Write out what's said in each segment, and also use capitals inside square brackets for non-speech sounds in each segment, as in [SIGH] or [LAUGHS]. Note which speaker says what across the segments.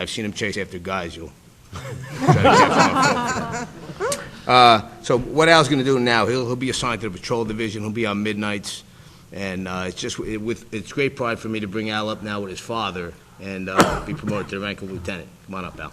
Speaker 1: I've seen him chase after guys, you. [LAUGHS] Try to catch him up. Uh, So what Al's going to do now, he'll, he'll be assigned to the patrol division, he'll be on midnights, and uh, it's just, it with, it's great pride for me to bring Al up now with his father and uh, be promoted to the rank of lieutenant. Come on up, Al.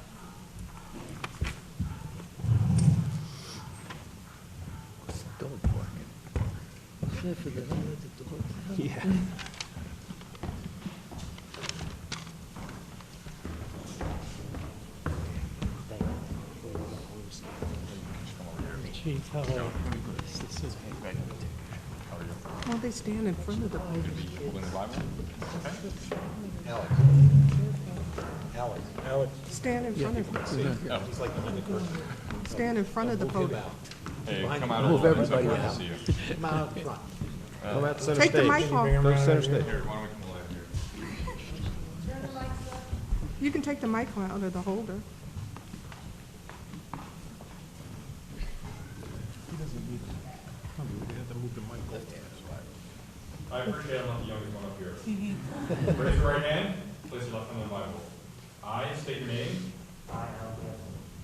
Speaker 2: Chief, how are you?
Speaker 3: Well, they stand in front of the podium. Stand in front of them. Stand in front of the podium.
Speaker 4: Move everybody out.
Speaker 3: Take the mic off.
Speaker 4: Go center stage.
Speaker 3: You can take the mic out of the holder.
Speaker 5: I appreciate I'm not the youngest one up here. [LAUGHS] Raise your right hand, place your left hand on the Bible. I state your name,
Speaker 6: I, Al Gamble,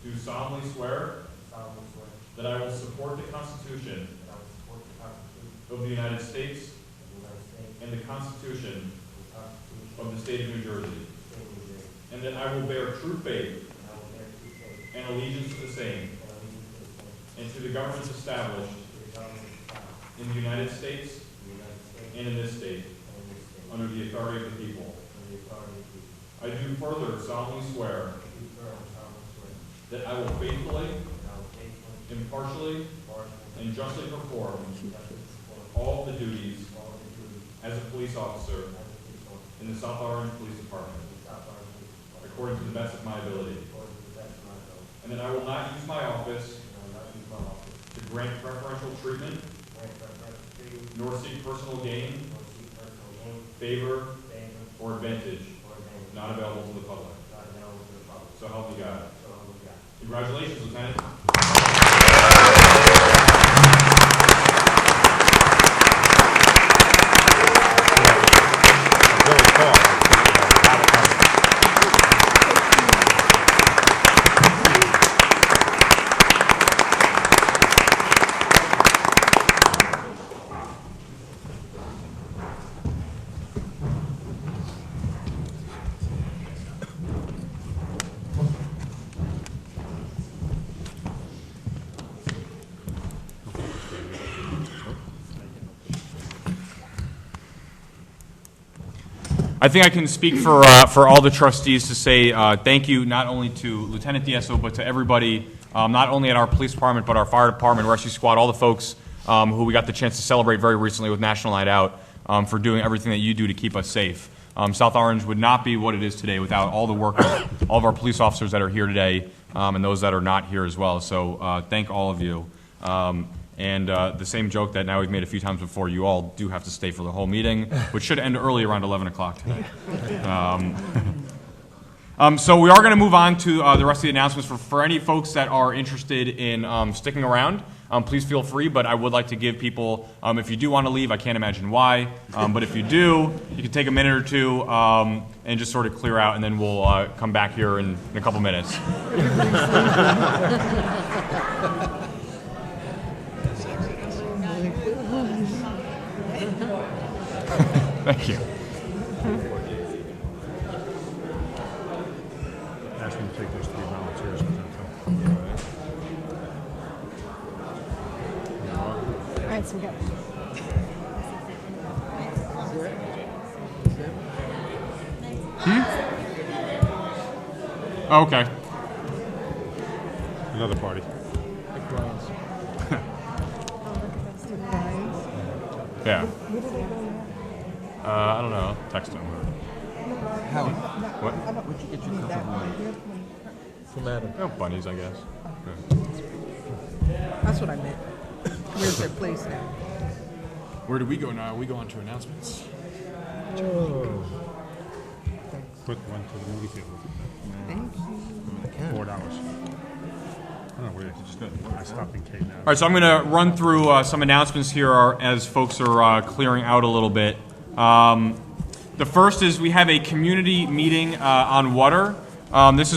Speaker 5: do solemnly swear
Speaker 6: solemnly swear that
Speaker 5: that I will support the Constitution
Speaker 6: I will support the Constitution
Speaker 5: of the United States
Speaker 6: of the United States
Speaker 5: and the Constitution
Speaker 6: and the Constitution
Speaker 5: of the State of New Jersey,
Speaker 6: of the State of New Jersey,
Speaker 5: and that I will bear true faith
Speaker 6: and I will bear true faith
Speaker 5: and allegiance to the same
Speaker 6: and allegiance to the same,
Speaker 5: and to the governments established
Speaker 6: to the government of God,
Speaker 5: in the United States
Speaker 6: in the United States
Speaker 5: and in this state,
Speaker 6: and in this state,
Speaker 5: under the authority of the people.
Speaker 6: under the authority of the people.
Speaker 5: I do further solemnly swear
Speaker 6: I do firmly solemnly swear
Speaker 5: that I will faithfully,
Speaker 6: that I will faithfully,
Speaker 5: impartially,
Speaker 6: impartially,
Speaker 5: and justly perform
Speaker 6: and justly perform
Speaker 5: all the duties
Speaker 6: all the duties
Speaker 5: as a police officer
Speaker 6: as a police officer
Speaker 5: in the South Orange Police Department,
Speaker 6: of the South Orange Police Department,
Speaker 5: according to the best of my ability,
Speaker 6: according to the best of my ability,
Speaker 5: and that I will not use my office
Speaker 6: and I will not use my office
Speaker 5: to grant preferential treatment
Speaker 6: to grant preferential treatment
Speaker 5: nor seek personal gain,
Speaker 6: or seek personal gain,
Speaker 5: favor,
Speaker 6: favor,
Speaker 5: or advantage
Speaker 6: or advantage
Speaker 5: not available to the public.
Speaker 6: not available to the public.
Speaker 5: So help me God.
Speaker 6: So help me God.
Speaker 5: Congratulations, Lieutenant. I think I can speak for, uh, for all the trustees to say uh, thank you not only to Lieutenant DSO, but to everybody, um, not only at our police department, but our fire department, rescue squad, all the folks um, who we got the chance to celebrate very recently with National Night Out um, for doing everything that you do to keep us safe. Um, South Orange would not be what it is today without all the work of all of our police officers that are here today um, and those that are not here as well. So uh, thank all of you. Um, and uh, the same joke that now we've made a few times before, you all do have to stay for the whole meeting, which should end early around 11 o'clock tonight. Um, so we are going to move on to uh, the rest of the announcements. For, for any folks that are interested in um, sticking around, um, please feel free. But I would like to give people, um, if you do want to leave, I can't imagine why. Um, but if you do, you can take a minute or two um, and just sort of clear out, and then we'll uh, come back here in, in a couple minutes. Thank you.
Speaker 4: Ask them to take those three volunteers.
Speaker 3: All right, so we got.
Speaker 5: Oh, Okay.
Speaker 4: Another party.
Speaker 3: Brian.
Speaker 5: Yeah. Uh, I don't know. Text him. What?
Speaker 3: Where'd you get your cup of wine?
Speaker 5: Oh, bunnies, I guess.
Speaker 3: That's what I meant. Where's their place now?
Speaker 7: Where do we go now? We go on to announcements.
Speaker 4: Put one to the movie theater.
Speaker 3: Thank you.
Speaker 4: Four dollars. I don't know where it is. I stopped in Cape
Speaker 5: All right, so I'm going to run through uh, some announcements here are, as folks are uh, clearing out a little bit. Um, the first is we have a community meeting uh, on water Um, This is